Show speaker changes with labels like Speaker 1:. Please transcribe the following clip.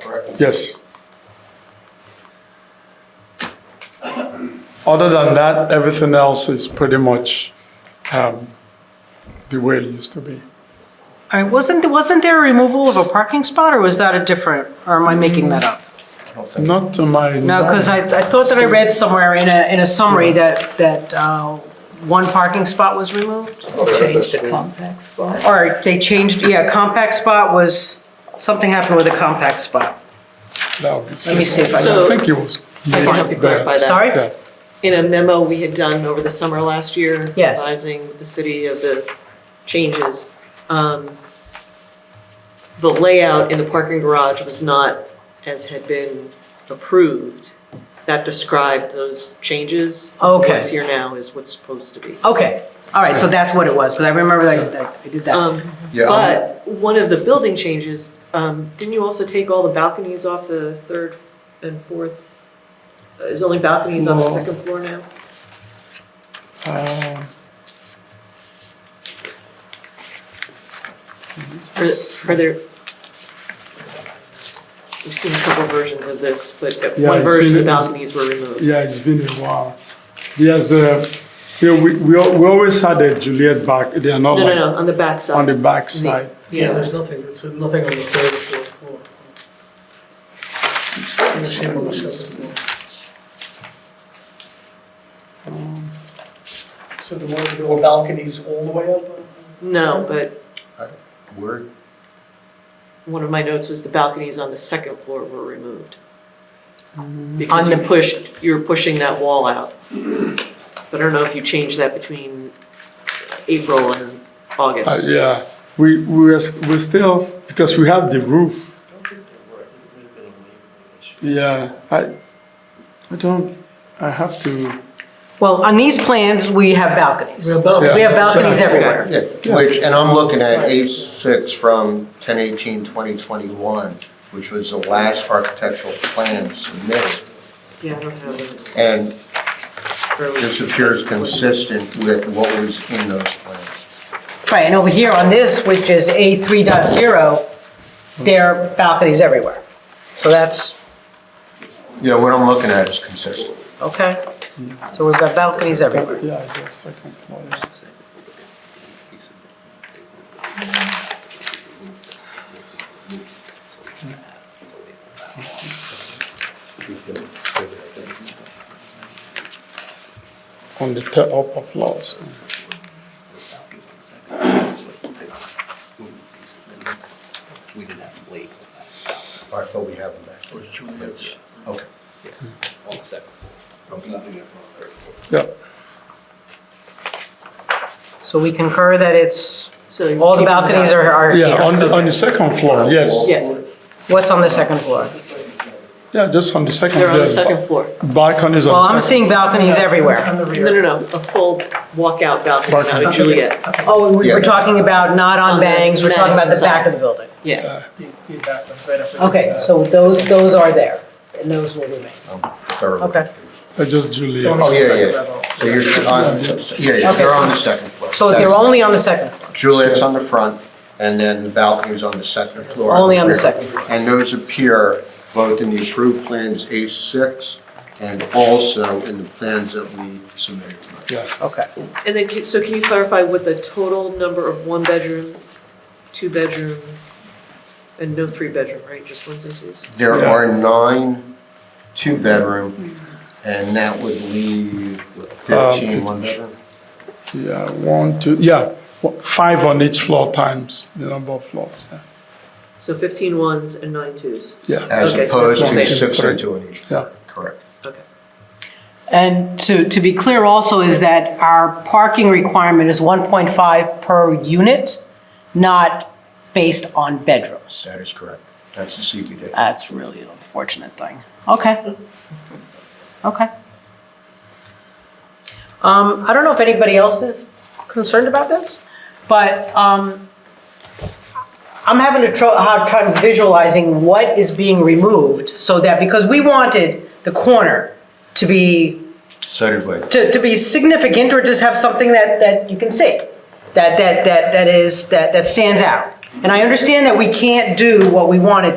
Speaker 1: correct?
Speaker 2: Yes. Other than that, everything else is pretty much um, the way it used to be.
Speaker 3: All right, wasn't, wasn't there a removal of a parking spot, or was that a different, or am I making that up?
Speaker 1: I don't think-
Speaker 2: Not to my.
Speaker 3: No, because I, I thought that I read somewhere in a, in a summary that, that uh, one parking spot was removed?
Speaker 4: Change the compact spot.
Speaker 3: Or they changed, yeah, compact spot was, something happened with a compact spot.
Speaker 2: Let
Speaker 3: Let me see if I
Speaker 2: I
Speaker 4: So-
Speaker 2: think it was.
Speaker 4: I can help you clarify that.
Speaker 3: Sorry?
Speaker 2: Yeah.
Speaker 4: In a memo we had done over the summer last year.
Speaker 3: Yes.
Speaker 4: Advising the city of the changes. um, The layout in the parking garage was not as had been approved. That described those changes.
Speaker 3: Okay.
Speaker 4: What's here now is what's supposed to be.
Speaker 3: Okay, all right, so that's what it was, because I remember that- that I did that.
Speaker 4: Um,
Speaker 1: Yeah, I'm-
Speaker 4: But one of the building changes, um, didn't you also take all the balconies off the third and fourth? Uh, There's only balconies on the
Speaker 2: No.
Speaker 4: second floor now?
Speaker 2: Um,
Speaker 4: Are are there? We've seen a couple versions of this, but
Speaker 2: Yeah,
Speaker 4: one
Speaker 2: it's
Speaker 4: version, the
Speaker 2: been-
Speaker 4: balconies were removed.
Speaker 2: Yeah, it's been a while. There's a, you know, we, we al- we always had a Juliet back, they are
Speaker 4: No,
Speaker 2: not
Speaker 4: no,
Speaker 2: like
Speaker 4: no, on the back
Speaker 2: on the
Speaker 4: side.
Speaker 2: back side.
Speaker 5: Yeah,
Speaker 4: Yeah,
Speaker 5: there's nothing, there's nothing on the third or fourth floor. And the same on the seventh floor. So the ones, there were balconies all the way up?
Speaker 4: no, but
Speaker 1: Where,
Speaker 4: one of my notes was the balconies on the second floor were removed.
Speaker 3: Mm.
Speaker 4: Because you pushed, you were pushing that wall out. But I don't know if you changed that between April and
Speaker 2: Uh,
Speaker 4: August.
Speaker 2: yeah, we, we are, st- we're still, because we have the roof. Yeah, I, I don't, I have to,
Speaker 3: Well, on these plans, we have balconies.
Speaker 5: We have balconies.
Speaker 3: We have balconies everywhere.
Speaker 1: yeah, which, and I'm looking at A6 from 10/18/2021, which was the last architectural plan submitted.
Speaker 4: Yeah, I don't have those.
Speaker 1: And
Speaker 4: Or was-
Speaker 1: this appears consistent with what was in those plans.
Speaker 3: Right, and over here on this, which is A3.0, there are balconies everywhere. So that's,
Speaker 1: Yeah, what I'm looking at is consistent.
Speaker 3: okay, so we've got balconies everywhere.
Speaker 2: yeah, it's the second floor. On the te- upper floors.
Speaker 6: We didn't have to wait.
Speaker 1: I thought we have them back. Okay.
Speaker 6: On the second floor.
Speaker 2: Yeah,
Speaker 3: So we concur that it's,
Speaker 4: So you're
Speaker 3: all the
Speaker 4: keeping
Speaker 3: balconies are, are
Speaker 2: yeah,
Speaker 3: here.
Speaker 2: on the, on the second floor, yes.
Speaker 4: Yes,
Speaker 3: What's on the second floor?
Speaker 2: Yeah, just on the second.
Speaker 4: they're on the
Speaker 2: there's ba-
Speaker 4: second floor.
Speaker 2: Balconies
Speaker 3: Well,
Speaker 2: on
Speaker 3: I'm
Speaker 2: the second.
Speaker 3: seeing balconies everywhere.
Speaker 5: On the
Speaker 4: No, no,
Speaker 5: rear.
Speaker 4: no, a full walkout balcony, not a
Speaker 2: Balcony.
Speaker 4: Juliet.
Speaker 3: Oh, we
Speaker 1: Yeah.
Speaker 3: we're talking about not
Speaker 4: On
Speaker 3: on
Speaker 4: the
Speaker 3: bangs, we're talking about the
Speaker 4: Madison
Speaker 3: back
Speaker 4: side.
Speaker 3: of the building.
Speaker 2: Uh,
Speaker 4: Yeah,
Speaker 5: These two bathrooms right up
Speaker 3: Okay,
Speaker 5: against
Speaker 3: so those, those are there, and those will remain.
Speaker 1: I'm thoroughly.
Speaker 3: Okay.
Speaker 2: Uh, Just
Speaker 5: that.
Speaker 2: Juliet.
Speaker 1: Oh, yeah,
Speaker 5: Second
Speaker 1: yeah.
Speaker 5: level.
Speaker 1: So you're, on- yeah, yeah, they're on the second floor.
Speaker 3: So they're only on the second floor.
Speaker 1: Juliet's on the front, and then the balcony's on the second floor.
Speaker 3: Only on the
Speaker 1: rear.
Speaker 3: second floor.
Speaker 1: And those appear both in the approved plans A6 and also in the plans that we submitted tonight.
Speaker 2: Yeah.
Speaker 3: Okay.
Speaker 4: and then, ca- so can you clarify what the total number of one-bedroom, two-bedroom, and no three-bedroom, right, just ones and twos?
Speaker 1: There
Speaker 2: Yeah.
Speaker 1: are nine two-bedroom, and that would leave what,
Speaker 2: Um,
Speaker 1: 15 one-bedroom.
Speaker 2: Yeah, one, two, yeah, wha- five on each floor times the number of floors, yeah.
Speaker 4: So fifteen ones and nine twos,
Speaker 2: yeah.
Speaker 1: As
Speaker 4: Okay, so
Speaker 1: opposed
Speaker 4: it's the
Speaker 1: to
Speaker 4: same.
Speaker 1: six and two on each floor,
Speaker 2: Yeah.
Speaker 1: correct.
Speaker 4: okay.
Speaker 3: And to, to be clear also is that our parking requirement is 1.5 per unit, not based on bedrooms.
Speaker 1: That is correct. That's the CBD.
Speaker 3: That's really an unfortunate thing. Okay. Okay. Um, I don't know if anybody else is concerned about this, but, um, I'm having a tro- a hard time visualizing what is being removed so that, because we wanted the corner to be
Speaker 1: So did we.
Speaker 3: to, to be significant or just have something that, that you can see, that, that, that, that is, that, that stands out. And I understand that we can't do what we wanted to.